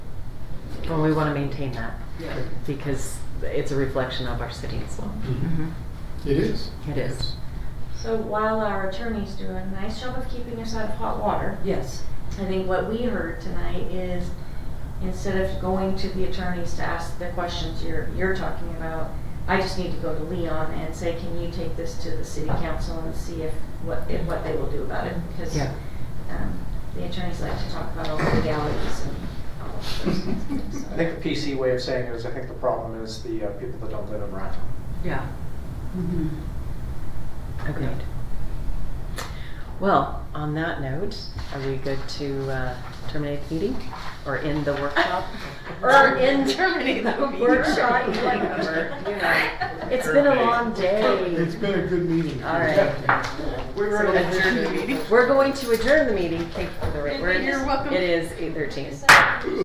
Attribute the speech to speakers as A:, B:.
A: and we want to maintain that
B: Yeah.
A: because it's a reflection of our city as well.
C: It is.
A: It is.
D: So while our attorneys do a nice job of keeping us out of hot water,
B: Yes.
D: I think what we heard tonight is instead of going to the attorneys to ask the questions you're, you're talking about, I just need to go to Leon and say, can you take this to the city council and see if, what, if what they will do about it? Because,
A: Yeah.
D: um, the attorneys like to talk about all the legalities and all of those kinds of
E: I
D: things.
E: think the PC way of saying it is, I think the problem is the uh, people that don't live in Rhineton.
B: Yeah. Mm-hmm.
A: Agreed. Well, on that note, are we good to uh, terminate the meeting or end the workshop?
D: Or in Germany, though.
A: Workshop, you like that word, you know.
D: It's been a long
C: It's
D: day.
C: been a good meeting.
A: All right.
B: We're going to adjourn the meeting.
A: We're going to adjourn the meeting. Thank you for the. You're welcome. It is 8:13.